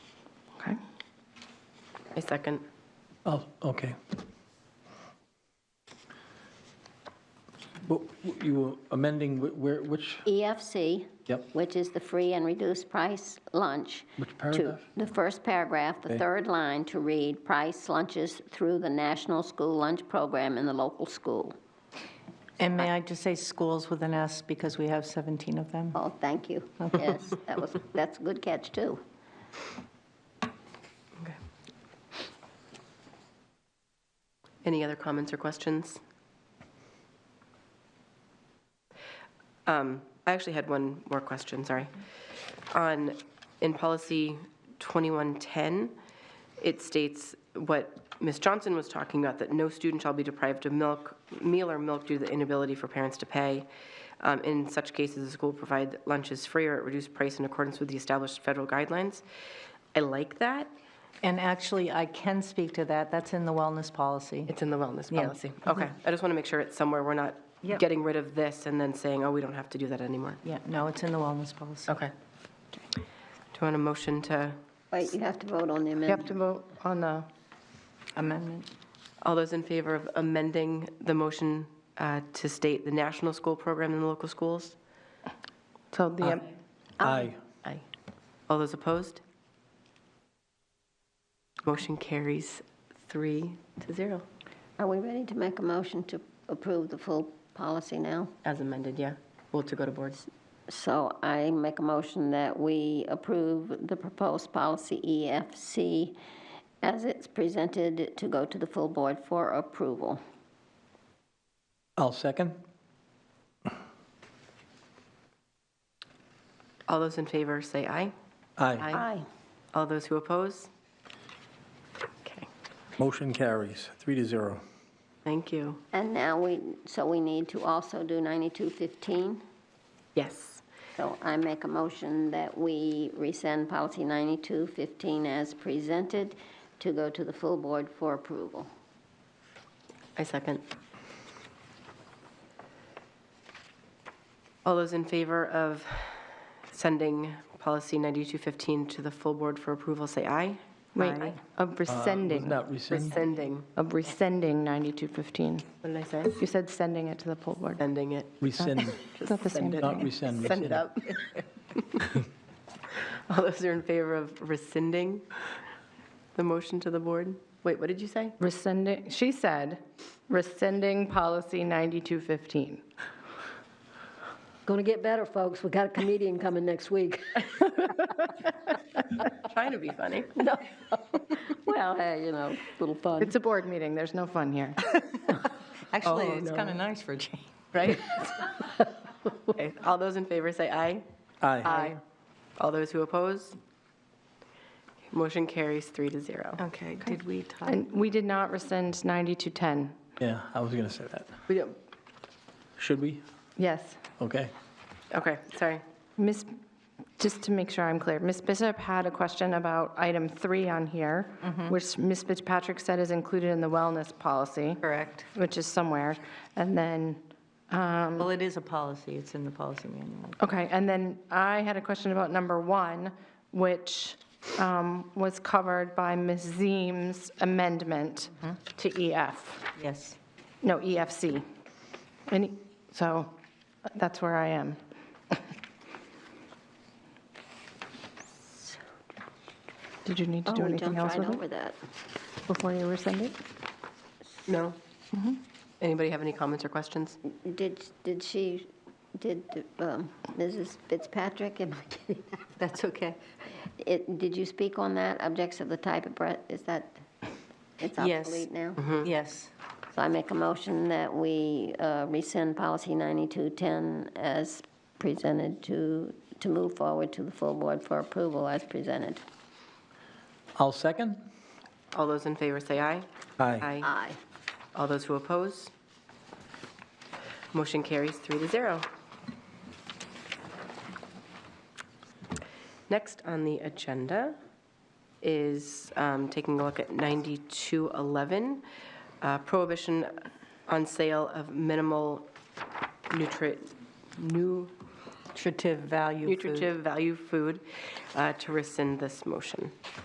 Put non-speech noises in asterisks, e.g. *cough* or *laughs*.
I second. Oh, okay. But you were amending wh- where, which, EFC, yep, E which is the free and reduced price lunch. Which to- paragraph? The first paragraph, the Okay. third line to read, price lunches through the National School Lunch Program in the local school. And may I just say schools with an S because we have 17 of them? Oh, thank you. Yes, that was, that's a good catch, too. Any other comments or questions? Um, I actually had one more question, sorry. On, in policy 2110, it states what Ms. Johnson was talking about, that no student shall be deprived of milk, meal or milk due to the inability for parents to pay. Um, In such cases, the school will provide lunches free or at reduced price in accordance with the established federal guidelines. I like that. And actually, I can speak to that. That's in the wellness policy. It's in the wellness Yeah. Mm-hmm. policy. Okay, I just want to make sure it's somewhere, we're not Yep. getting rid of this and then saying, oh, we don't have to do that anymore. Yeah, no, it's in the wellness policy. Okay. Do you want a motion to, Wait, you have to vote on the You have to amendment. vote on the amendment. all those in favor of amending the motion uh, to state the national school program in the local schools? So the, aye. Aye. All those opposed? Motion carries three to zero. Are we ready to make a motion to approve the full policy now? As amended, yeah. Well, to go to boards. So I make a motion that we approve the proposed policy EFC as it's presented to go to the full board for approval. I'll second. All those in favor, say aye. Aye. Aye. All those who oppose? Okay, Motion carries, three to zero. thank you. And now we, so we need to also do 9215. Yes. So I make a motion that we rescind policy 9215 as presented to go to the full board for approval. I second. All those in favor of sending policy 9215 to the full board for approval, say aye. Wait, of Does rescinding, Not rescind. Sending. of rescinding 9215. What did I say? You said sending it to the poll board. Sending it. rescind, *laughs* It's not the same not thing. rescind. Send it rescind. *laughs* up. All those are in favor of rescinding the motion to the board? Wait, what did you say? Rescinding, she said rescinding policy 9215. Going to get better, folks. We got a comedian coming next week. Trying to be funny. Well, hey, you know, little fun. It's a board meeting, there's no fun here. Actually, Oh, it's kind of nice for a change. Right? Okay, All those in favor, say aye. Aye. All those who oppose? Motion carries three to zero. Okay, did we talk? And we did not rescind 9210. Yeah, I was going to say that. We don't, Should we? Yes. Okay. okay, sorry. Miss, just to make sure I'm clear, Miss Bishop had a question about item three on here, which Miss Fitzpatrick said is included in the wellness policy. Correct. Which is somewhere. And then, Well, it is a policy, it's in the policy manual. okay, and then I had a question about number one, which um, was covered by Ms. Zeem's amendment to EF, Yes. no, EFC. Any, so that's where *laughs* I am. Did you need to Oh, do we anything jumped else right with over it that. before you rescind it? No? Mm-hmm. Anybody have any comments or questions? Did, did she, did um, Mrs. Fitzpatrick, am I kidding? *laughs* That's okay. It, did you speak on that, objects of the type of breath, is that, Yes. it's Mm-hmm. obsolete now? Mm-hmm. Yes. So I make a motion that we uh, rescind policy 9210 as presented to, to move forward to the full board for approval as presented. I'll second. All those in favor say aye. Aye. Aye. All those who oppose? Motion carries three to zero. Next on the agenda is um, taking a look at 9211, uh, prohibition on sale of minimal nutri, new Nutritive value food. nutritive value food, uh, to rescind this motion.